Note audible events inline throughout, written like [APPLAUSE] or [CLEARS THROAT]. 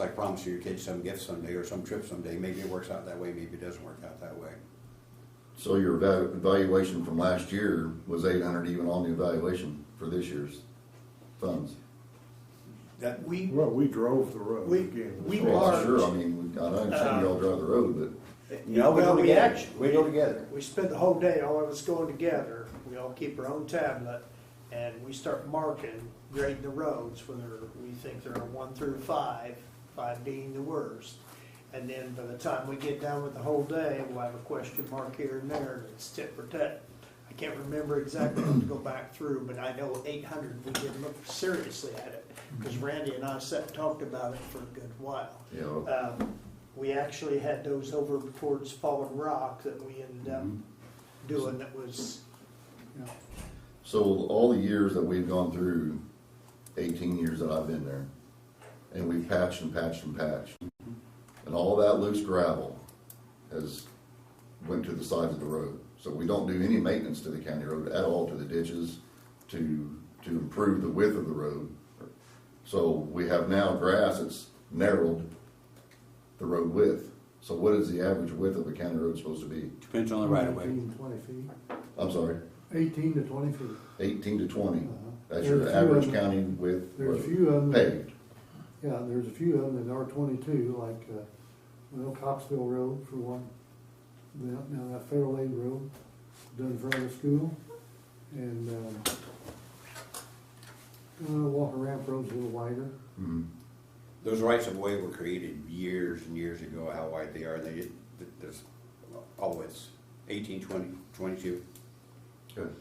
I promise you, your kids some gift someday or some trip someday. Maybe it works out that way, maybe it doesn't work out that way. So your eva- evaluation from last year was eight hundred even on the evaluation for this year's funds? That, We, Well, we drove the road We- again. we Well, are- Uh, Sure, I mean, we- I understand y'all drive the road, but no, we well, go we together. actually- We go together. we spent the whole day, all of us going together, we all keep our own tablet, and we start marking, grading the roads, whether we think they're a one through five, five being the worst. And then by the time we get done with the whole day, we'll have a question mark here and there, and it's tit for tat. I can't remember exactly, I'll have to go back through, but I know eight hundred, we did look seriously at it, because Randy and I sat, and talked about it for a good while. you know, Um, We actually had those over towards Fallen Rock that we ended up doing that was, you know, so all the years that we've gone through, eighteen years that I've been there, and we've patched and patched and patched, and all that loose gravel has went to the sides of the road. So we don't do any maintenance to the county road at all, to the ditches, to, to improve the width of the road. So we have now grass that's narrowed the road width. So what is the average width of a county road supposed to be? Depends on the right of way. Mm-hmm. Eighteen to twenty feet, I'm sorry, eighteen to twenty feet. eighteen to twenty. Uh-huh. That's There's your a few average of them- county width. There's a road. few of them, Paved. yeah, there's a few of them that are twenty-two, like, uh, well, Coxville Road for one. Now, now that Federal Aid Road, done in front of the school, and, um, uh, Walker Ramp Road's a little wider. Mhm. Those rights of way were created years and years ago, how wide they are, and they, did- there's, oh, it's eighteen, twenty, twenty-two. Good.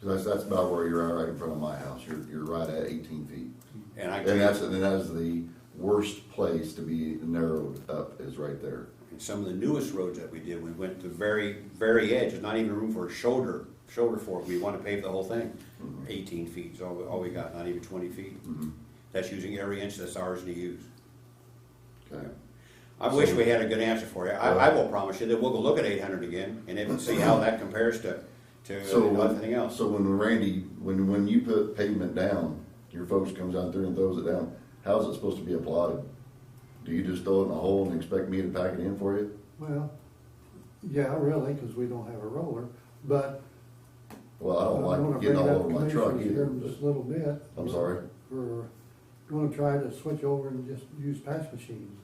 Cause that's, that's about where you're at, right in front of my house. You're, you're right at eighteen feet. And I, And that's, and and that is the worst place to be narrowed up is right there. some of the newest roads that we did, we went to the very, very edge, there's not even room for a shoulder, shoulder for it, we wanna pave the whole thing. Mm-hmm. Eighteen feet is all, we- all we got, not even twenty feet. Mhm. That's using every inch that's ours to use. Okay. I wish we had a good answer for you. I, I will promise you that we'll go look at eight hundred again and then see how that compares to, to everything So, else. so when Randy, when, when you put pavement down, your folks comes out there and throws it down, how's it supposed to be applauded? Do you just throw it in a hole and expect me to pack it in for you? Well, yeah, really, because we don't have a roller, but Well, I I'm don't gonna like bring getting it all up over to my truck commissioners either, here in just a but little bit. I'm sorry. We're gonna try to switch over and just use patch machines.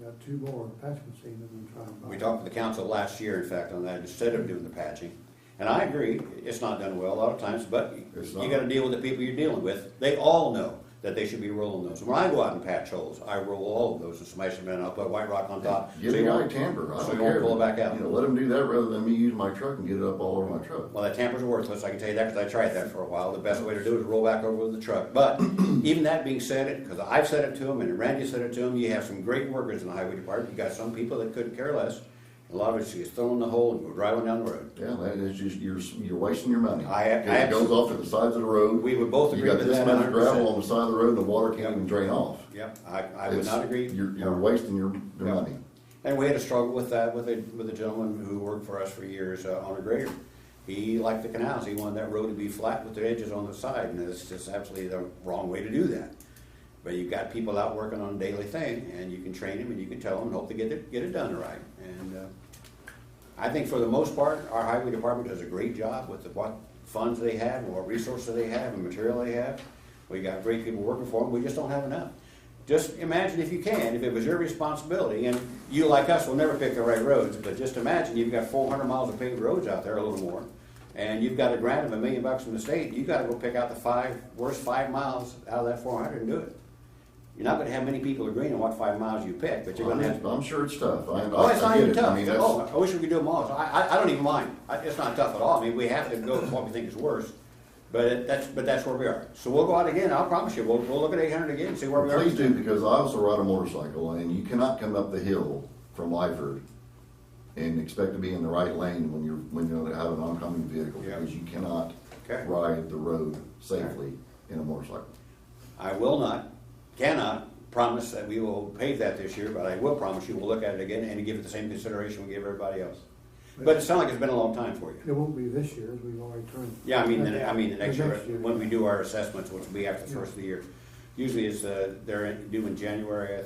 I've got two more patch machines I'm gonna try and buy. We talked to the council last year, in fact, on that, instead of doing the patching. And I agree, it's not done well a lot of times, but It's you not. gotta deal with the people you're dealing with. They all know that they should be rolling those. When I go out and patch holes, I roll all of those and smash them in, I'll put white rock on top. Give so me you my won't- tamper, I So don't you won't care. pull it back out. You know, let them do that rather than me use my truck and get it up all over my truck. Well, that tamper's worthless, I can tell you that, because I tried that for a while, the best way to do it is roll back over with the truck. [CLEARS THROAT] But even that being said, it, because I've said it to them, and Randy said it to them, you have some great workers in the highway department, you got some people that couldn't care less. A lot of it's just thrown in the hole and go driving down the road. Yeah, that is just, you're, you're wasting your money. I- I 'Cause It goes off to the sides of the road. We would both You agree got with this that much hundred gravel percent. on the side of the road, the water can't even drain off. Yep, I, I would It's- not agree. You're, you're wasting your, your Yeah. money. And we had a struggle with that with a, with a gentleman who worked for us for years uh, on a grader. He liked the canals, he wanted that road to be flat with the edges on the side, and it's just absolutely the wrong way to do that. But you've got people out working on a daily thing, and you can train them, and you can tell them, and hope to get it, get it done right. And, uh, I think for the most part, our highway department does a great job with the, what funds they have, and what resources they have, and material they have. We got great people working for them, we just don't have enough. Just imagine if you can, if it was your responsibility, and you like us will never pick the right roads, but just imagine you've got four hundred miles of paved roads out there, a little more, and you've got a grant of a million bucks from the state, you gotta go pick out the five, worst five miles out of that four hundred and do it. You're not gonna have many people agreeing on what five miles you pick, but you're gonna have. I'm I'm sure it's tough. I, Oh, it's I not get even it. I tough. mean, Oh, that's, I wish we could do them all. So I, I, I don't even mind. I, it's not tough at all. I mean, we have to go with what we think is worse. But it, that's, but that's where we are. So we'll go out again. I'll promise you, we'll, we'll look at eight hundred again, and see where we are. please do, because I also ride a motorcycle and you cannot come up the hill from Lyford and expect to be in the right lane when you're, when you have an oncoming vehicle, Yeah. because you cannot Okay. ride the road safely in a motorcycle. I will not, cannot promise that we will pave that this year, but I will promise you, we'll look at it again and give it the same consideration we give everybody else. But it sounds like it's been a long time for you. It won't be this year, as we've already turned. Yeah, I mean, the- I mean, the next year, when we do our assessments, which will be after the first of the year. usually is, uh, they're due in January, I